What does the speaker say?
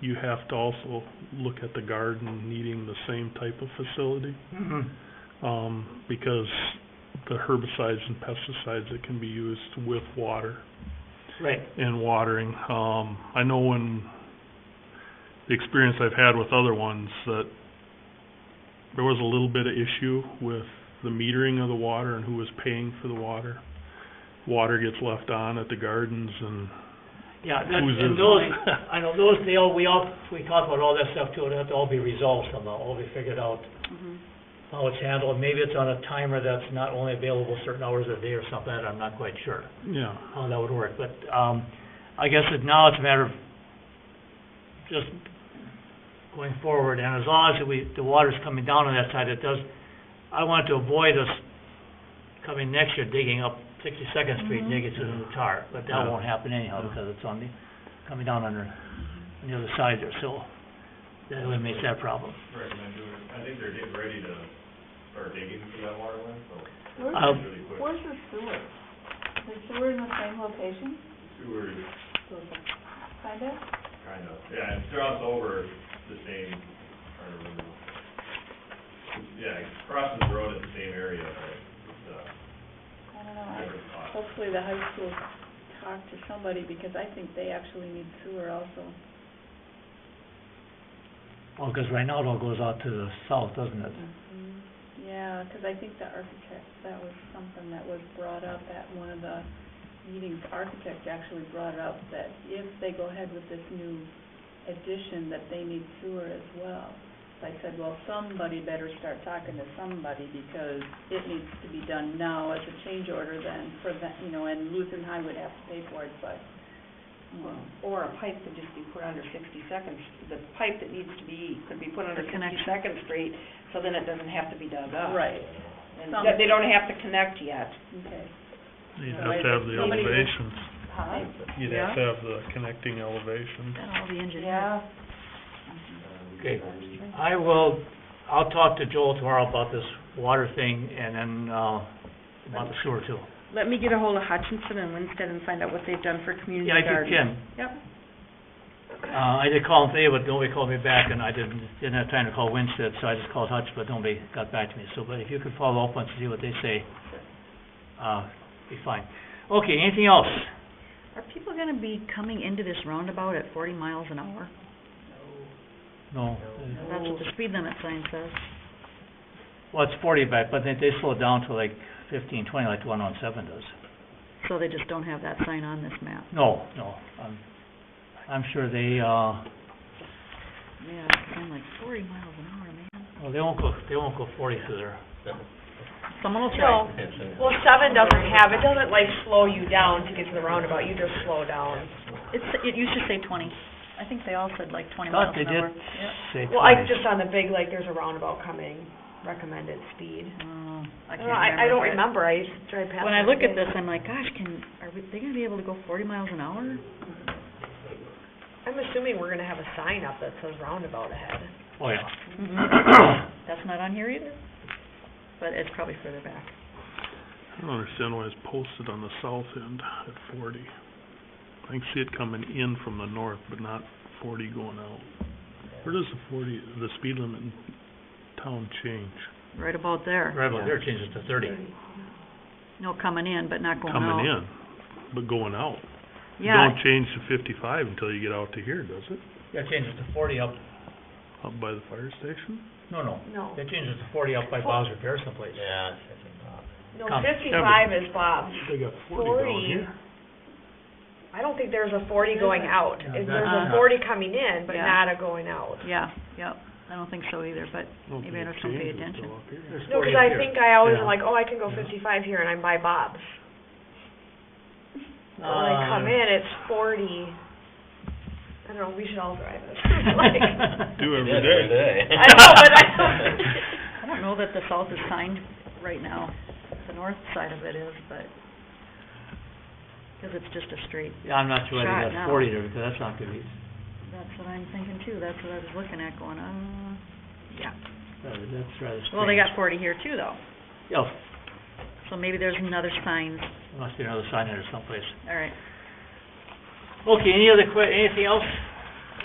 you have to also look at the garden needing the same type of facility, Mhm. um, because the herbicides and pesticides that can be used with water Right, and watering. Um, I know when, the experience I've had with other ones, that there was a little bit of issue with the metering of the water and who was paying for the water. Water gets left on at the gardens and yeah, that- who's and is those, it? I know, those, they all, we all, we talk about all that stuff too, and it have to all be resolved somehow, all be figured out Mhm. how it's handled. Maybe it's on a timer that's not only available certain hours of the day or something, I'm not quite sure Yeah, how that would work, but, um, I guess it, now it's a matter of just going forward, and as long as we, the water's coming down on that side, it does, I want to avoid us coming next year digging up Sixty-second Street, Mhm. digging through the tar, but that Mm-hmm. Yeah. won't happen anyhow, Yeah. because it's on the, coming down under, on the other side there, so that eliminates that problem. recommend doing it. I think they're getting ready to start digging for that water line, so Where's, Um, it's really quick. where's the sewer? Is sewer in the same location? Sewer is Kind of? kind of, yeah, it's crossed over the same, trying to remember. Yeah, it crosses the road at the same area, but it's a I don't know. I- different spot. Hopefully the high school talked to somebody because I think they actually need sewer also. Well, because right now it all goes out to the south, doesn't it? Mhm. Yeah, because I think the architect, that was something that was brought up at one of the meetings. The Architect actually brought up that if they go ahead with this new addition, that they need sewer as well. So I said, well, somebody better start talking to somebody because it needs to be done now as a change order then for that, you know, and Lutheran High would have to pay for it, but, um, Or a pipe could just be put under Sixty-second, the pipe that needs to be, could be put under The connection. Sixty-second Street, so then it doesn't have to be dug up. right, And Some- that- they don't have to connect yet. okay. you'd have to have the Somebody- elevations. Huh? You'd have to have the connecting elevations. Yeah. Okay, I will, I'll talk to Joel tomorrow about this water thing and then, uh, about the sewer too. Let me get a hold of Hutchinson and Winstead and find out what they've done for community Yeah, I did gardens. Ken. Yep. Uh, I did call him today, but nobody called me back and I didn't, didn't have time to call Winstead, so I just called Hutch, but nobody got back to me. So, but if you could follow up and see what they say, uh, be fine. Okay, anything else? Are people gonna be coming into this roundabout at forty miles an hour? No. That's what the speed limit sign says. Well, it's forty back, but they, they slow down to like fifteen, twenty, like the one on seven does. So they just don't have that sign on this map. No, no, I'm, I'm sure they, uh, Yeah, 'cause I'm like, forty miles an hour, man. well, they won't go, they won't go forty through there. Someone will No, try. well, seven doesn't have, it doesn't like slow you down to get to the roundabout, you just slow down. It's, it used to say twenty. I think they all said like twenty miles Thought they an did hour. Yeah. say Well, I, twenty. just on the big, like, there's a roundabout coming, recommended speed. Oh, I I can't don't know, I, I don't remember. remember, I used to drive but past. When I it look at every day. this, I'm like, gosh, can, are we- they gonna be able to go forty miles an hour? I'm assuming we're gonna have a sign up that says roundabout ahead. Oh, yeah. That's not on here either, but it's probably further back. I don't understand why it's posted on the south end at forty. I can see it coming in from the north, but not forty going out. Where does the forty, the speed limit in town change? Right about there. Right about there, change it to thirty. No, coming in, but not going out. Coming in, but going out. It Yeah, Don't change to fifty-five until you get out to here, does it? Yeah, change it to forty up, Up by the fire station? no, no, No, they change it to forty up by Bob's Repair someplace. Yeah. no, Come. fifty-five is Bob's. They got forty down Forty, here. I don't think there's a forty going out. Yeah, There's that's- a forty coming in, but Yeah. not a going out. yeah, yep. I don't think so either, but I don't Maybe I think just don't pay it attention. changes till up here. There's No, forty because up I here. think I always am Yeah. like, oh, I can go Yeah. fifty-five here and I'm by Bob's. But When I come Uh, in, it's forty. I don't know, we should all drive this. Like, Do every day. I know, but I don't. I don't know that the south is signed right now. The north side of it is, but, because it's just a straight. Yeah, I'm not sure why Try it they got now. forty there, because that's not gonna be, uh, That's what I'm thinking too. That's what I was looking at going, uh, yeah. rather- that's rather Oh, strange. Well, they got forty here too, though. Yeah, So maybe there's another sign. there must be another sign there someplace. All right. Okay, any other que, anything else?